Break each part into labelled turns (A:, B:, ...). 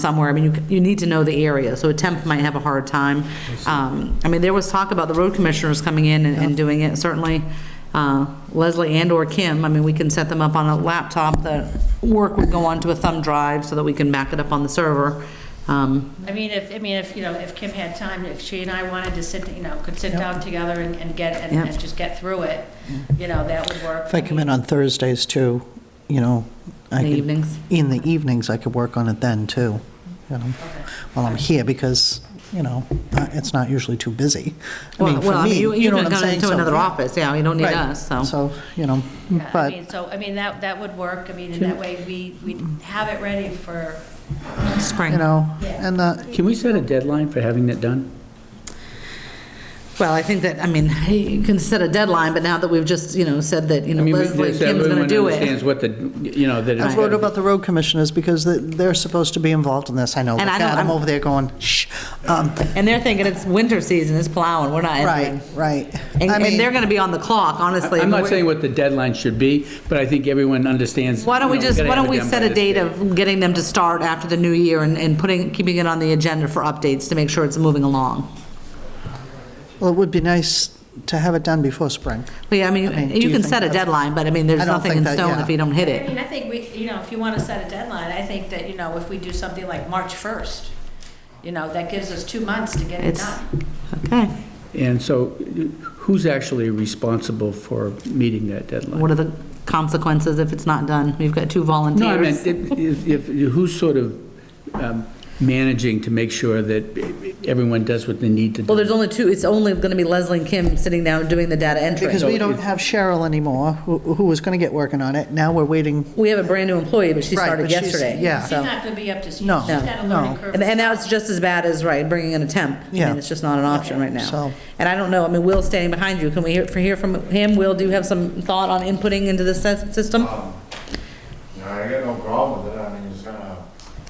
A: somewhere. I mean, you, you need to know the area, so a temp might have a hard time. Um, I mean, there was talk about the road commissioners coming in and, and doing it, certainly, uh, Leslie and or Kim, I mean, we can set them up on a laptop, the work would go onto a thumb drive so that we can back it up on the server. Um,
B: I mean, if, I mean, if, you know, if Kim had time, if she and I wanted to sit, you know, could sit down together and, and get, and
A: Yep.
B: and just get through it, you know, that would work.
C: Mm-hmm. If I come in on Thursdays too, you know, I
A: In the
C: could-
A: evenings?
C: In the evenings, I could work on it then too, you know, while I'm here, because, you know, uh, it's not usually too busy. I
A: Well,
C: mean,
A: well,
C: for
A: I mean, you,
C: me,
A: you
C: you know
A: can
C: what I'm
A: go
C: saying?
A: into
C: So-
A: another office, yeah, you don't need
C: Right.
A: us, so.
C: So, you know,
B: Yeah, I
C: but,
B: mean, so, I mean, that, that would work, I mean, and that way we, we have it ready for,
A: Spring.
C: you know,
B: Yeah.
C: and uh, the,
D: Can we set a deadline for having that done?
A: Well, I think that, I mean, you can set a deadline, but now that we've just, you know, said that, you
D: I
A: know,
D: mean, we-
A: Leslie,
D: so
A: Kim's gonna
D: everyone
A: do it.
D: Understands what the, you know, that
C: I
D: it's
C: wrote
D: gotta
C: about the road commissioners, because they- they're supposed to be involved in this, I know.
A: And I
C: God,
A: know- I'm-
C: I'm over there going, shh. Um,
A: And they're thinking it's winter season, it's plowing, we're not entering.
C: Right, right.
A: And,
C: I
A: and
C: mean,
A: they're going to be on the clock, honestly.
D: I'm not
A: We're-
D: saying what the deadline should be, but I think everyone understands.
A: Why don't we
D: you know,
A: just,
D: gotta
A: why
D: have
A: don't
D: it
A: we
D: done
A: set
D: by
A: a
D: this
A: date
D: date.
A: of getting them to start after the new year and, and putting, keeping it on the agenda for updates to make sure it's moving along?
C: Well, it would be nice to have it done before spring.
A: But yeah, I mean,
C: mean, do
A: you
C: you
A: can
C: think
A: set a
C: that's-
A: deadline, but I mean, there's
C: I don't
A: nothing
C: think
A: in
C: that-
A: stone
C: yeah.
A: if you don't hit
B: I
A: it.
B: mean, I think we, you know, if you want to set a deadline, I think that, you know, if we do something like March 1st, you know, that gives us two months to get it
A: It's,
B: done.
A: okay.
D: And so who's actually responsible for meeting that deadline?
A: What are the consequences if it's not done? We've got two
D: No, I meant,
A: volunteers.
D: if, if- who's sort of um, managing to make sure that everyone does what they need to do?
A: Well, there's only two, it's only going to be Leslie and Kim sitting down doing the data entry.
C: Because we don't have Cheryl anymore, who who was going to get working on it. Now we're waiting
A: We have a brand-new employee, but she
C: Right,
A: started
C: but she's-
A: yesterday.
C: yeah.
B: She's
A: so-
B: not going to be up to speed.
C: No,
B: She's got a
C: no.
B: learning curve.
A: And, and that's just as bad as, right, bringing in a temp. I
C: Yeah.
A: mean, it's just not an option right now.
C: So-
A: And I don't know, I mean, Will's standing behind you, can we hear, for- hear from him? Will, do you have some thought on inputting into the sys- system?
E: No, I got no problem with it, I mean, it's gonna.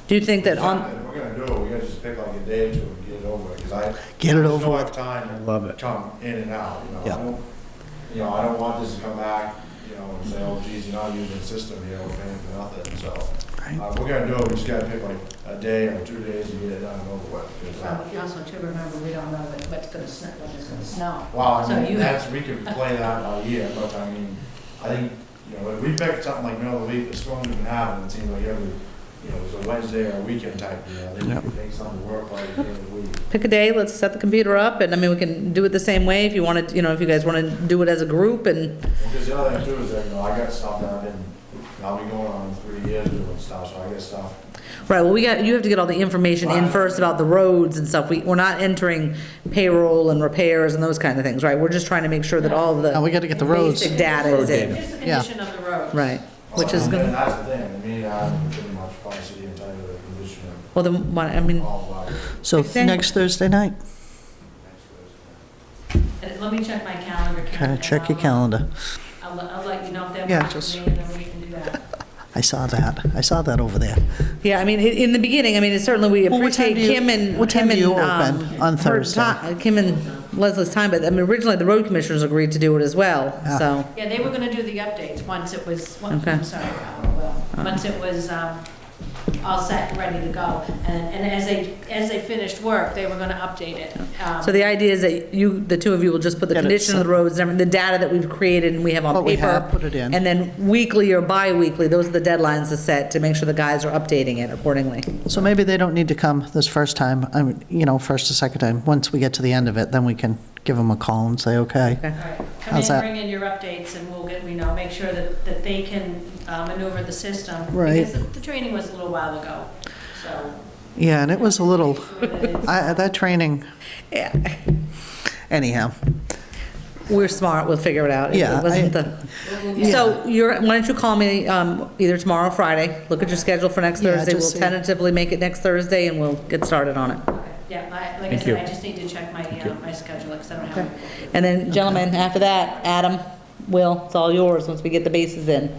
A: Do you think that on,
E: If we're gonna do it, we gotta just pick like a day or two and get it over, because I.
C: Get it
E: I just
C: over
E: don't
C: with.
E: have time to.
D: Love it.
E: Come in and out, you know, I
C: Yeah.
E: don't, you know, I don't want this to come back, you know, and say, oh geez, you're not using the system, you know, we're paying for nothing, so. Uh, if we're gonna do it, we just gotta pick like a day or two days to get it done and over with, 'cause, uh,
B: Well, we Also, to remember, we don't know what- what's going to snow, when it's going to snow.
E: Well,
B: So
E: I mean,
B: you-
E: that's, we could play that by year, but I mean, I think, you know, if we picked something like middle of the week, the storm didn't happen, it seemed like every, you know, it was a Wednesday or a weekend type, you know, they could make something work like the end of the week.
A: pick a day, let's set the computer up, and I mean, we can do it the same way if you wanted, you know, if you guys want to do it as a group and,
E: Because the other thing too is that, you know, I got stuff that I've been, I'll be going on in three years doing stuff, so I got stuff.
A: right, well, we got, you have to get all the information in first about the roads and stuff. We, we're not entering payroll and repairs and those kind of things, right? We're just trying to make sure that all the.
C: Now, we gotta get the roads.
A: Basic data is
D: Road data.
A: in,
B: Just the
C: Yeah.
B: condition of the road.
A: right, which is
E: And
A: going to.
E: That's the thing, I mean, I'm pretty much probably sitting in tight of the condition
A: Well, then, why- I mean,
E: of all of our.
C: So
A: Thursday?
C: next Thursday night,
B: And Let me check my calendar. Karen,
C: kind of
B: and
C: check your
B: I'll-
C: calendar.
B: I'll, let- I'll let you know if that
C: Yeah,
B: works
C: just-
B: for me, and then we can do that.
C: I saw that. I saw that over there.
A: yeah, I mean, i- in the beginning, I mean, it's certainly, we
C: Well, what time
A: appreciate
C: do you-
A: Kim and,
C: what time
A: Kim
C: do
A: and,
C: you
A: um.
C: open on
A: her
C: Thursday?
A: ti- Kim and Leslie's time, but, I mean, originally, the road commissioners agreed to do it as well,
C: Ah.
A: so,
B: Yeah, they were gonna do the updates once it was, one-
A: Okay.
B: I'm sorry, uh, well,
C: Uh-huh.
B: once it was um, all set, ready to go. And, and as they, as they finished work, they were gonna update it. Um,
A: so the idea is that you, the two of you will just put the
C: Get it
A: condition of
C: set.
A: the roads, and everything- the data that we've created and we have on
C: What we
A: paper.
C: have, put it in.
A: And then weekly or bi-weekly, those are the deadlines to set, to make sure the guys are updating it accordingly.
C: So maybe they don't need to come this first time, I mean, you know, first or second time. Once we get to the end of it, then we can give them a call and say, okay.
B: all right. Come in,
C: How's that?
B: bring in your updates, and we'll get, we know, make sure that, that they can uh, maneuver the system.
C: Right.
B: Because the- the training was a little while ago, so.
C: Yeah, and it was a little,
B: It's-
C: I, that training,
A: Yeah,
C: anyhow.
A: we're smart, we'll figure it out. It
C: Yeah, I-
A: wasn't the- So you're, why don't you call me um, either tomorrow or Friday? Look at your schedule for next
C: Yeah,
A: Thursday.
C: just
A: We'll
C: see.
A: tentatively make it next Thursday and we'll get started on it.
B: Yeah, I- like I
D: Thank
B: said,
D: you.
B: I just need to check my, uh, my schedule, because I don't have.
A: And then gentlemen, after that, Adam, Will, it's all yours once we get the bases in.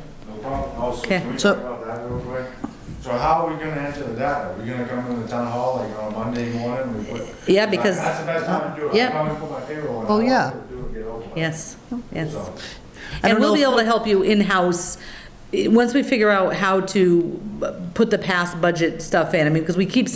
E: No problem, also,
A: Okay.
E: can we
C: So-
E: talk about that real quick? So how are we gonna enter the data? Are we gonna come into the town hall like on a Monday morning? We put-
A: Yeah, because-
E: That's the best time to do it.
A: Yeah.
E: I probably put my payroll on.
C: Oh, yeah.
E: Do it, get over with.
A: Yes, yes.
E: So,
C: I
A: And
C: don't
A: we'll
C: know
A: be
C: if-
A: able to help you in-house eh, once we figure out how to uh, put the past budget stuff in, I mean, because we keep